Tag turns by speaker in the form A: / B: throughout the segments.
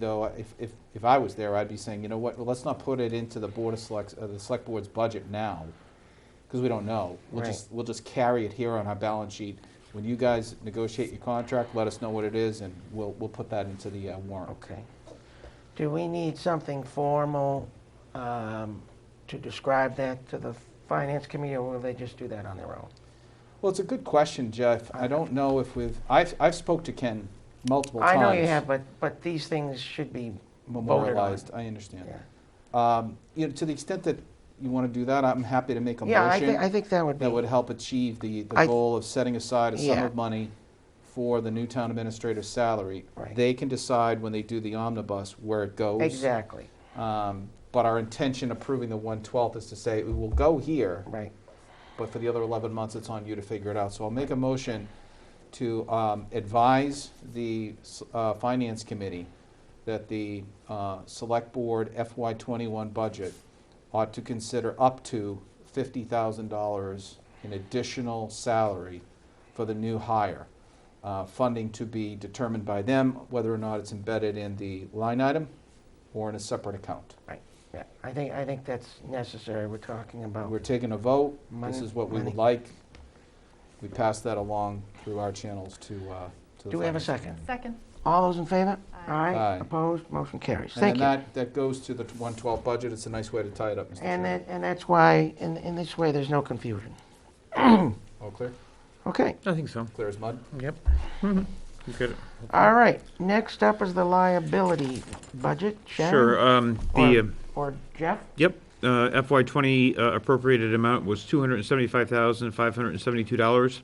A: though, if, if, if I was there, I'd be saying, you know what, well, let's not put it into the Board of Selects, uh, the Select Board's budget now, because we don't know. We'll
B: Right.
A: just, we'll just carry it here on our balance sheet. When you guys negotiate your contract, let us know what it is, and we'll, we'll put that into the uh, warrant.
B: Okay. Do we need something formal um, to describe that to the Finance Committee, or will they just do that on their own?
A: Well, it's a good question, Jeff. I don't know if we've, I've, I've spoke to Ken multiple
B: I
A: times.
B: know you have, but, but these things should be voted on.
A: Memorialized, I understand.
B: Yeah.
A: Um, You know, to the extent that you want to do that, I'm happy to make a motion.
B: Yeah, I think, I think that would be,
A: that would help achieve the, the
B: I-
A: goal of setting aside a sum
B: Yeah.
A: of money for the new town administrator's salary.
B: Right.
A: They can decide when they do the omnibus where it goes.
B: exactly,
A: Um, But our intention approving the one-twelfth is to say, it will go here,
B: right.
A: but for the other eleven months, it's on you to figure it out. So I'll make a motion to um, advise the s- uh, Finance Committee that the uh, Select Board FY twenty-one budget ought to consider up to fifty thousand dollars in additional salary for the new hire. Uh, Funding to be determined by them, whether or not it's embedded in the line item or in a separate account.
B: Yeah, I think, I think that's necessary, we're talking about,
A: We're taking a vote.
B: Money-
A: This is what we
B: money.
A: would like. We pass that along through our channels to, uh, to the.
B: do we have a
A: finance.
B: second?
C: Second.
B: All those in favor?
C: Aye.
A: Aye.
B: Opposed, motion carries,
A: And then
B: thank you.
A: that, that goes to the 112 budget. It's a nice way to tie it up, Mr.
B: And
A: Chairman.
B: that, and that's why, in, in this way, there's no confusion.
A: All clear?
B: Okay,
D: I think so.
A: Clear as mud?
D: Yep. You could-
B: all right, next up is the liability budget, Sharon?
D: Sure, um,
B: Or-
D: the, uh,
B: Or Jeff?
D: yep, uh, FY twenty uh, appropriated amount was two hundred and seventy-five thousand, five hundred and seventy-two dollars.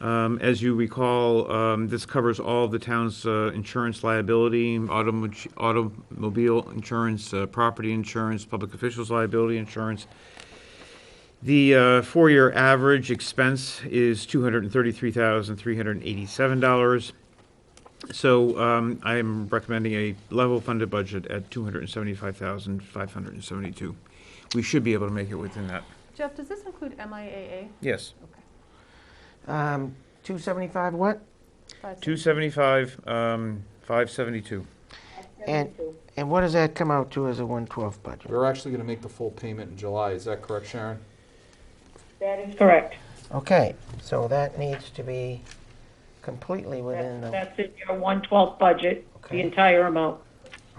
D: Um, as you recall, um, this covers all of the town's, uh, insurance liability, automo- automobile insurance, uh, property insurance, public officials liability insurance, The uh, four-year average expense is two hundred and thirty-three thousand three hundred and eighty-seven dollars. So um, I am recommending a level funded budget at two hundred and seventy-five thousand five hundred and seventy-two. We should be able to make it within that.
C: Jeff, does this include MIAA?
D: Yes.
C: Okay.
B: Um, 275 what?
C: Five
D: Two
C: seconds.
D: seventy-five, um, five seventy-two.
B: And, and what does that come out to as a 112 budget?
A: We're actually going to make the full payment in July. Is that correct, Sharon?
E: That is correct.
B: Okay, so that needs to be completely within the,
E: That's in your 112 budget,
B: uh, Okay.
E: the entire amount.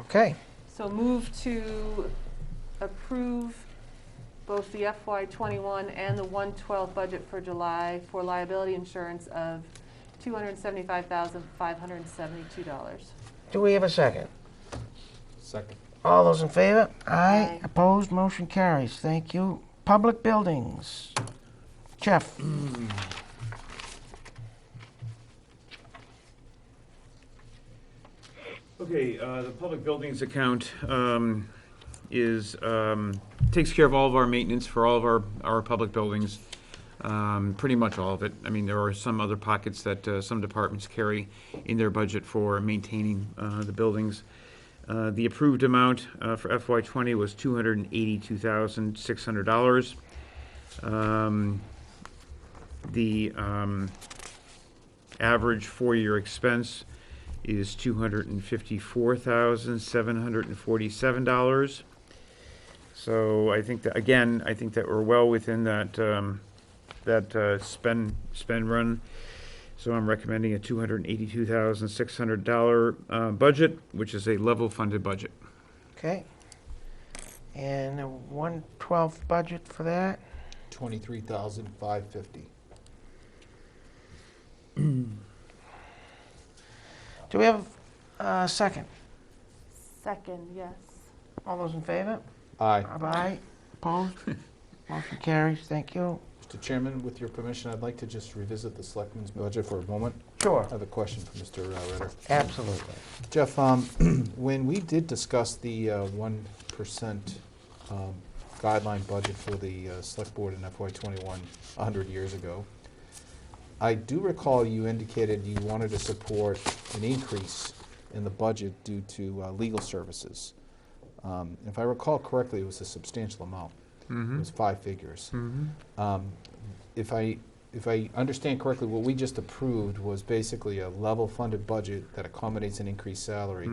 B: okay,
C: So move to approve both the FY twenty-one and the one twelve budget for July for liability insurance of two hundred and seventy-five thousand, five hundred and seventy-two dollars.
B: do we have a second?
A: Second.
B: All those in favor? Aye,
C: Aye.
B: opposed, motion carries, thank you. Public buildings, Jeff?
D: Okay, uh, the public buildings account um, is, um, takes care of all of our maintenance for all of our, our public buildings, um, pretty much all of it. I mean, there are some other pockets that uh, some departments carry in their budget for maintaining uh, the buildings. Uh, The approved amount uh, for FY '20 was $282,600. Um, The um, average four-year expense is two hundred and fifty-four thousand, seven hundred and forty-seven dollars. So I think that, again, I think that we're well within that, um, that, uh, spend, spend run. So I'm recommending a two hundred and eighty-two thousand, six hundred dollar, uh, budget, which is a level-funded budget.
B: Okay. And a 112 budget for that?
A: 23,550.
B: Do we have a second?
C: Second, yes.
B: All those in favor?
A: Aye.
B: Aye, opposed, motion carries, thank you.
A: Mr. Chairman, with your permission, I'd like to just revisit the selectmen's budget for a moment.
B: Sure.
A: I have a question for uh, Mr. Ritter.
B: Absolutely.
A: Jeff, um, when we did discuss the uh, 1% um, guideline budget for the uh, Select Board in FY '21 100 years ago, I do recall you indicated you wanted to support an increase in the budget due to uh, legal services. Um, If I recall correctly, it was a substantial amount. It
D: Hmm. Mm-hmm.
A: was five figures. Um, If I, if I understand correctly, what we just approved was basically a level-funded budget that accommodates an increased salary.